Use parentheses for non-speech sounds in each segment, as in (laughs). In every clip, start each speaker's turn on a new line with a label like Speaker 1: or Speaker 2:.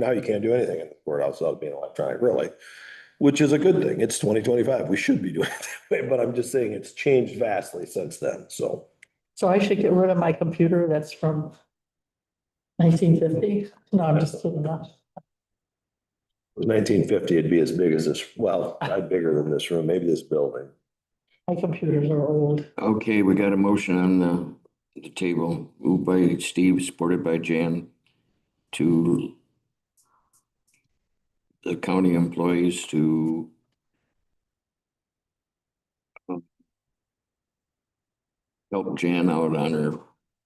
Speaker 1: Now you can't do anything in the courthouse without being electronic, really, which is a good thing. It's twenty twenty-five. We should be (laughs) doing it that way, but I'm just saying it's changed vastly since then, so.
Speaker 2: So I should get rid of my computer that's from nineteen fifty? No, I'm just kidding.
Speaker 1: Nineteen fifty, it'd be as big as this, well, not bigger than this room, maybe this building.
Speaker 2: My computers are old.
Speaker 3: Okay, we got a motion on the, the table, moved by Steve, supported by Jan, to the county employees to um, help Jan out on her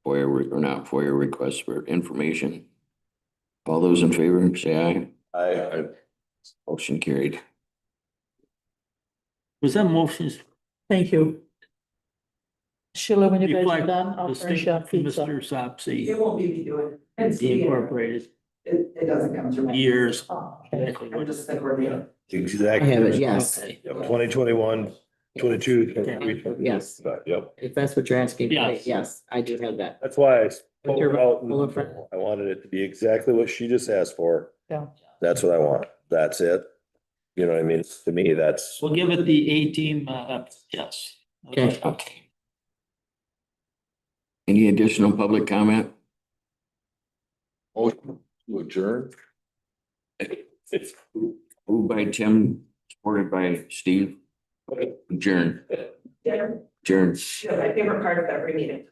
Speaker 3: FOIA, re- or not FOIA requests for information. All those in favor, say aye.
Speaker 1: I,
Speaker 3: Motion carried.
Speaker 4: Was that motions
Speaker 2: Thank you. Sheila, when you guys are
Speaker 4: reflect
Speaker 2: done, I'll
Speaker 4: the
Speaker 2: furnish
Speaker 4: statement
Speaker 2: up
Speaker 4: from
Speaker 2: pizza.
Speaker 4: Mr. Sopsey,
Speaker 5: It won't be me doing it. It's
Speaker 4: the
Speaker 5: the-
Speaker 4: incorporated
Speaker 5: It, it doesn't come through. my-
Speaker 4: years?
Speaker 2: Oh, okay.
Speaker 4: Exactly
Speaker 5: I'm
Speaker 4: what-
Speaker 5: just the coordinator.
Speaker 1: exactly.
Speaker 6: yes.
Speaker 4: Okay.
Speaker 1: Twenty twenty-one, twenty-two, twenty-three.
Speaker 6: Yes,
Speaker 1: Yep,
Speaker 6: if that's what you're asking,
Speaker 4: Yes.
Speaker 6: yes, I do have that.
Speaker 1: that's why I spoke
Speaker 6: Your-
Speaker 1: out.
Speaker 6: Well, in front.
Speaker 1: and I wanted it to be exactly what she just asked for.
Speaker 2: Yeah.
Speaker 1: That's what I want. That's it. You know what I mean? To me, that's.
Speaker 4: We'll give it the A team, uh, yes.
Speaker 6: Okay.
Speaker 3: Okay. Any additional public comment?
Speaker 1: Motion to adjourn?
Speaker 3: Moved by Tim, supported by Steve. Adjourn,
Speaker 5: Yeah,
Speaker 3: adjourn.
Speaker 5: you know, my favorite part of every meeting.